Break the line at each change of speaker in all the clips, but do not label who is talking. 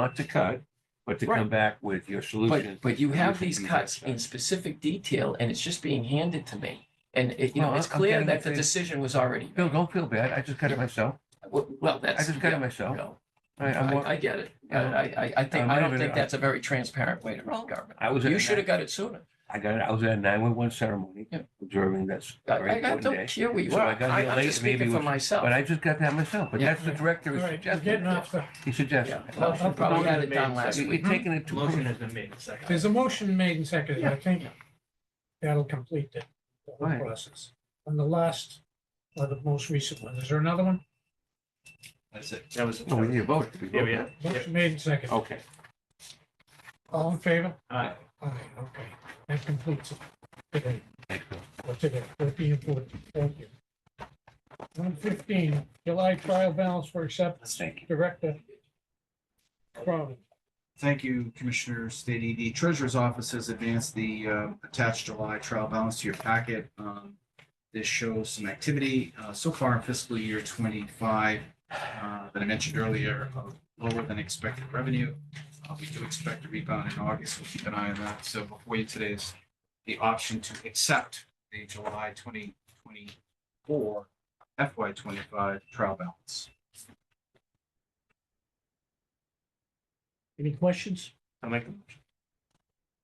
not to cut, but to come
Right.
back with your solution.
But, but you have
solution
these
to
cuts
that.
in specific detail and it's just being handed to me. And it, you know,
Well,
it's
I'm
clear
getting
that
it,
the
Dave.
decision was already,
Bill, don't feel bad. I just cut it myself.
well, well, that's.
I just cut
yeah,
it myself.
no,
I, I'm wa-
I, I get it. I,
Yeah.
I, I- I think,
I'm
I
not
don't
even-
think that's a very transparent way to run government.
I was. at
You
a
should have
nine-
got it sooner.
I got it. I was at a nine-one-one ceremony,
Yeah.
observing this
I,
very
I- I
important day.
don't care where you
So
are.
I got
I,
here
I'm
late,
just
maybe it
speaking for
was-
myself.
But I just got that myself, but
Yeah.
that's the director
All
is
right, we're
suggesting.
getting off the,
He suggested.
Yeah, well, I probably had it done last
You- You're
week.
taking it too. far.
Motion has been made and seconded.
there's a motion made and seconded, I think
Yeah.
that'll complete the the whole
Right.
process. And the last, or the most recent one, is there another one?
That's it. That was.
No, we need a vote. We
Yeah,
vote.
we are. Yeah.
Motion made and seconded,
Okay.
all in favor?
Aye.
Aye, okay, that completes it today,
Thanks, Bill.
or today, it'll be important, thank you. One fifteen, July trial balance for acceptance,
Thank you.
Director Crowden.
Thank you, Commissioners. The, the Treasurer's Office has advanced the uh, attached July trial balance to your packet. Um, This shows some activity uh, so far in fiscal year twenty-five uh, that I mentioned earlier, of lower than expected revenue. Uh, We do expect a rebound in August. We'll keep an eye on that. So before you today's, the option to accept the July twenty twenty-four FY twenty-five trial balance.
Any questions?
I'll make the motion.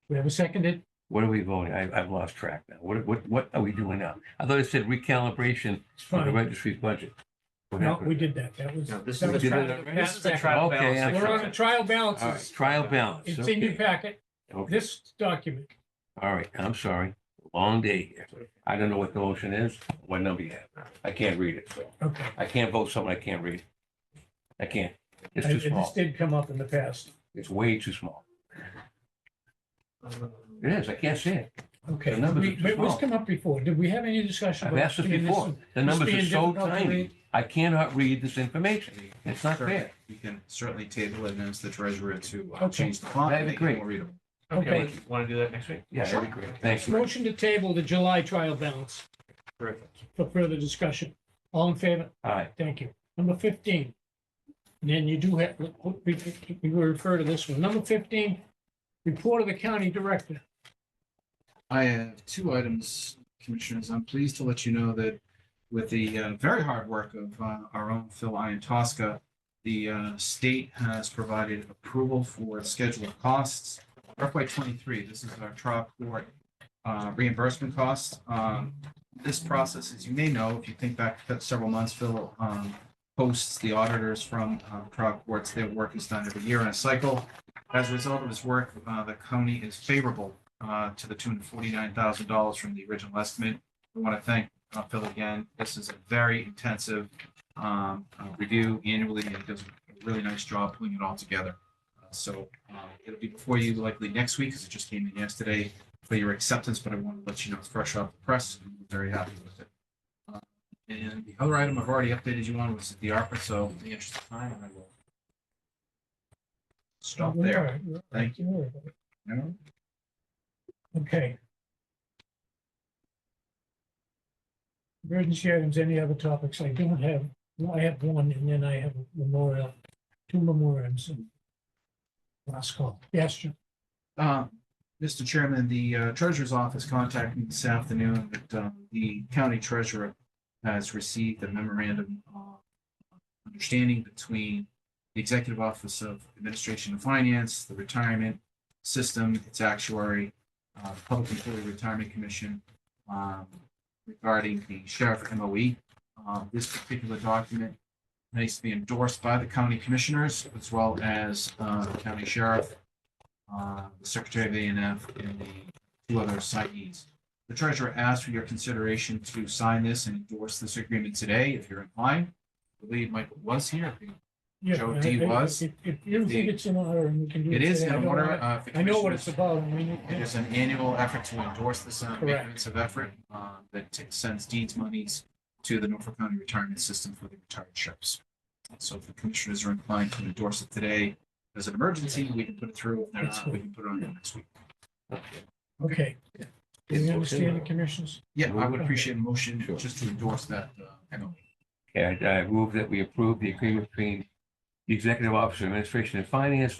We have a seconded?
What are we voting? I, I've lost track now. What, what, what are we doing now? I thought it said recalibration
It's
for the
fine.
registry's budget. What
No,
happened?
we did that, that was.
No, this
that
is
was
the-
part of
the- this is the
packet.
trial
Okay,
balance.
I'm
We're on the trial
All right,
balances,
trial balance.
it's in your
Okay.
packet,
Okay.
this document.
All right, I'm sorry. Long day here. I don't know what the motion is, what number you have. I can't read it.
Okay.
I can't vote something I can't read. I can't. It's
I-
too
This
small.
did come up in the past.
It's way too small. It is. I can't see it.
Okay,
The numbers are
we-
too
but it was
small.
come up before. Did we have any discussion?
I've
about
asked this
being
before. The
this
numbers are
being
so
difficult to
tiny.
read?
I cannot read this information. It's not
Certainly,
fair.
You can certainly table it and ask the treasurer to uh,
Okay.
change the font.
That'd
and
be
make it
great.
more readable.
Okay,
Okay.
want to do that next week?
Yeah, that'd be great. Thank you.
Motion to table the July trial balance
Terrific.
for further discussion. All in favor?
All right.
Thank you. Number fifteen. And Then you do have, we, we will refer to this one. Number fifteen, report of the county director.
I have two items, Commissioners. I'm pleased to let you know that with the uh, very hard work of uh, our own Phil Iantosca, the uh, state has provided approval for schedule of costs. FY twenty-three, this is our trial court uh, reimbursement costs. Um, This process, as you may know, if you think back several months, Phil um, posts the auditors from uh, trial courts. Their work is done every year in a cycle. As a result of his work, uh, the county is favorable uh, to the tune of forty-nine thousand dollars from the original estimate. I want to thank uh, Phil again. This is a very intensive um, uh, review annually and he does a really nice job pulling it all together. Uh, So uh, it'll be before you likely next week because it just came in yesterday for your acceptance, but I want to let you know it's fresh off the press. and we're Very happy with it. Uh, And the other item I've already updated you on was the ARPA, so in the interest of time, I will stop there. Thank
you.
No?
Okay. Emergency items, any other topics? I don't have, well, I have one and then I have a memorial, two memorials and last call. Yes, Jim.
Uh, Mr. Chairman, the uh, Treasurer's Office contacted me this afternoon that uh, the County Treasurer has received a memorandum of understanding between the Executive Office of Administration and Finance, the Retirement System, its actuary, uh, the Public Employee Retirement Commission um, regarding the Sheriff MOE. Uh, This particular document needs to be endorsed by the County Commissioners as well as uh, the County Sheriff uh, the Secretary of ANF and the two other signees. The treasurer asks for your consideration to sign this and endorse this agreement today if you're inclined. I believe Michael was here.
Yeah,
Joe
I-
D.
I-
was.
If, if you don't think
The-
it's in order and we can do
It
it.
is
today,
in
I don't
order.
wanna-
uh, if the
I know what it's
commissioners-
about and we need.
It is an annual effort to endorse this uh,
Correct.
maintenance of effort uh, that t- sends deeds monies to the Norfolk County Retirement System for the retired ships. So if the commissioners are inclined to endorse it today as an emergency, we can put it through. If they're not, we can put it on next week.
Okay. Do you understand the commissions?
Yeah, I would appreciate a motion
Sure.
just to endorse that uh, MOU.
Okay, I I move that we approve the agreement between the Executive Office of Administration and Finance